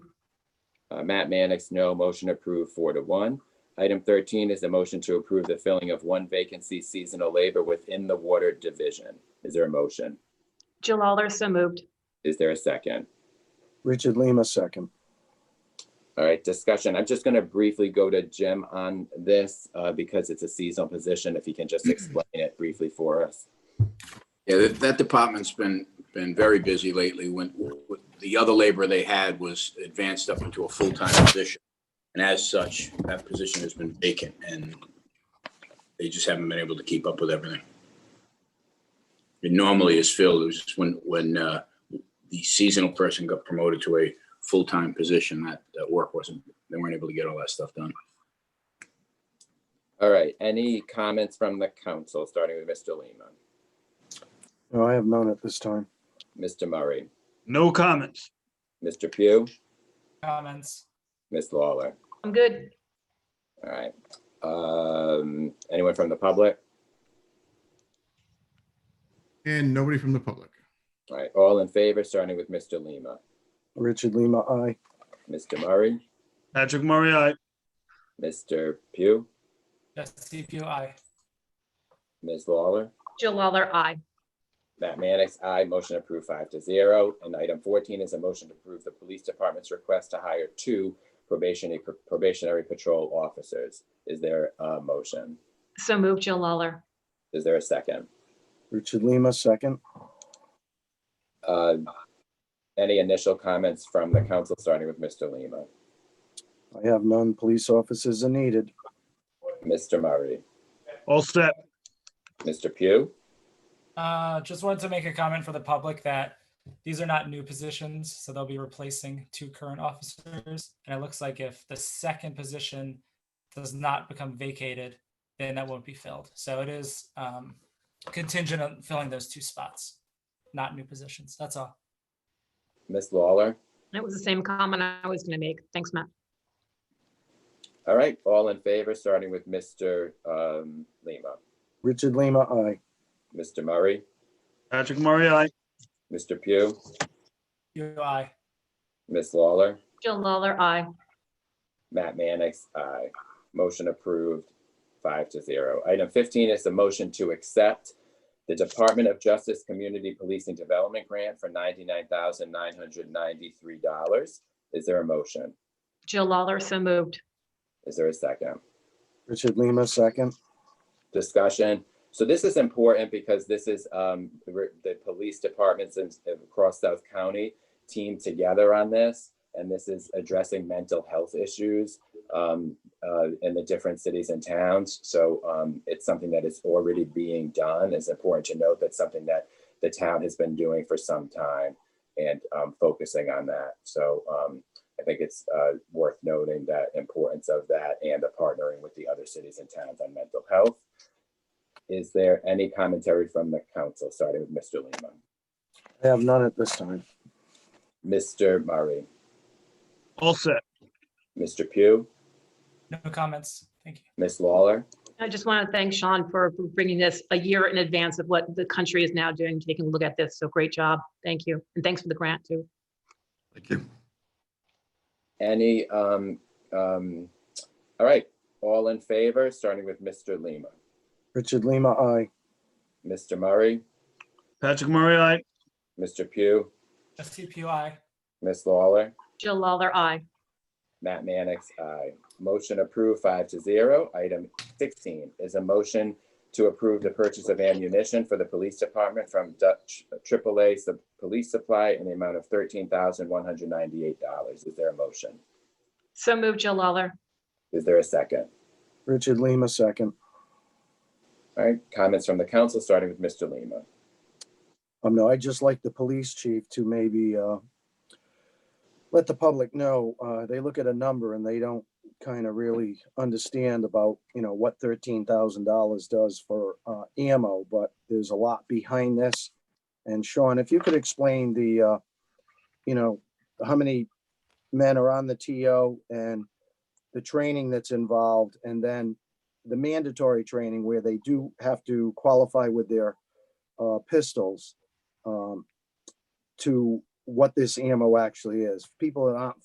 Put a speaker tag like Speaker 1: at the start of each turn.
Speaker 1: Uh, Matt Mannix, no. Motion approved four to one. Item thirteen is a motion to approve the filling of one vacancy seasonal labor within the water division. Is there a motion?
Speaker 2: Jill Lawler, so moved.
Speaker 1: Is there a second?
Speaker 3: Richard Lima, second.
Speaker 1: All right, discussion. I'm just going to briefly go to Jim on this uh, because it's a seasonal position. If he can just explain it briefly for us.
Speaker 4: Yeah, that, that department's been, been very busy lately. When, with- the other labor they had was advanced up into a full-time position. And as such, that position has been vacant and they just haven't been able to keep up with everything. It normally is filled, it was just when, when, uh, the seasonal person got promoted to a full-time position, that, that work wasn't, they weren't able to get all that stuff done.
Speaker 1: All right, any comments from the council, starting with Mr. Lima,
Speaker 3: No, I have none at this time.
Speaker 1: Mr. Murray,
Speaker 5: No comments.
Speaker 1: Mr. Pugh,
Speaker 6: comments,
Speaker 1: Ms. Lawler?
Speaker 2: I'm good.
Speaker 1: All right. Um, anyone from the public?
Speaker 7: And nobody from the public.
Speaker 1: All right, all in favor, starting with Mr. Lima,
Speaker 3: Richard Lima, aye.
Speaker 1: Mr. Murray,
Speaker 5: Patrick Murray, aye.
Speaker 1: Mr. Pugh,
Speaker 6: Jesse Pugh, aye.
Speaker 1: Ms. Lawler?
Speaker 2: Jill Lawler, aye.
Speaker 1: Matt Mannix, aye. Motion approved five to zero. And item fourteen is a motion to approve the police department's request to hire two probationary probationary patrol officers. Is there a motion?
Speaker 2: So moved, Jill Lawler.
Speaker 1: Is there a second?
Speaker 3: Richard Lima, second.
Speaker 1: Uh, Any initial comments from the council, starting with Mr. Lima?
Speaker 3: I have none. Police officers are needed.
Speaker 1: Mr. Murray,
Speaker 5: All set.
Speaker 1: Mr. Pugh,
Speaker 6: Uh, just wanted to make a comment for the public that these are not new positions, so they'll be replacing two current officers. And it looks like if the second position does not become vacated, then that won't be filled. So it is um, contingent on filling those two spots, not new positions. That's all.
Speaker 1: Ms. Lawler.
Speaker 2: That was the same comment I was going to make. Thanks, Matt.
Speaker 1: All right, all in favor, starting with Mr. um, Lima,
Speaker 3: Richard Lima, aye.
Speaker 1: Mr. Murray,
Speaker 5: Patrick Murray, aye.
Speaker 1: Mr. Pugh,
Speaker 6: Pugh, aye.
Speaker 1: Ms. Lawler.
Speaker 2: Jill Lawler, aye.
Speaker 1: Matt Mannix, aye. Motion approved, five to zero. Item fifteen is the motion to accept the Department of Justice Community Policing Development Grant for ninety-nine thousand nine hundred ninety-three dollars. Is there a motion?
Speaker 2: Jill Lawler, so moved.
Speaker 1: Is there a second?
Speaker 3: Richard Lima, second.
Speaker 1: discussion. So this is important because this is um, re- the police departments in- across South County team together on this. And this is addressing mental health issues um, uh, in the different cities and towns. So um, it's something that is already being done. It's important to note that's something that the town has been doing for some time and um, focusing on that. So um, I think it's uh, worth noting that importance of that and the partnering with the other cities and towns on mental health. Is there any commentary from the council, starting with Mr. Lima?
Speaker 3: I have none at this time.
Speaker 1: Mr. Murray,
Speaker 5: All set.
Speaker 1: Mr. Pugh,
Speaker 6: No comments. Thank you.
Speaker 1: Ms. Lawler,
Speaker 2: I just want to thank Sean for bringing this a year in advance of what the country is now doing, taking a look at this. So great job. Thank you. And thanks for the grant, too.
Speaker 7: Thank you.
Speaker 1: any, um, um, all right, all in favor, starting with Mr. Lima,
Speaker 3: Richard Lima, aye.
Speaker 1: Mr. Murray,
Speaker 5: Patrick Murray, aye.
Speaker 1: Mr. Pugh,
Speaker 6: Jesse Pugh, aye.
Speaker 1: Ms. Lawler,
Speaker 2: Jill Lawler, aye.
Speaker 1: Matt Mannix, aye. Motion approved five to zero. Item sixteen is a motion to approve the purchase of ammunition for the police department from Dutch AAA Sup- Police Supply in the amount of thirteen thousand one hundred ninety-eight dollars. Is there a motion?
Speaker 2: So moved, Jill Lawler.
Speaker 1: Is there a second?
Speaker 3: Richard Lima, second.
Speaker 1: All right, comments from the council, starting with Mr. Lima.
Speaker 3: Um, no, I'd just like the police chief to maybe, uh, let the public know, uh, they look at a number and they don't kind of really understand about, you know, what thirteen thousand dollars does for, uh, ammo, but there's a lot behind this. And Sean, if you could explain the, uh, you know, how many men are on the TO and the training that's involved, and then the mandatory training where they do have to qualify with their uh, pistols um, to what this ammo actually is. People that aren't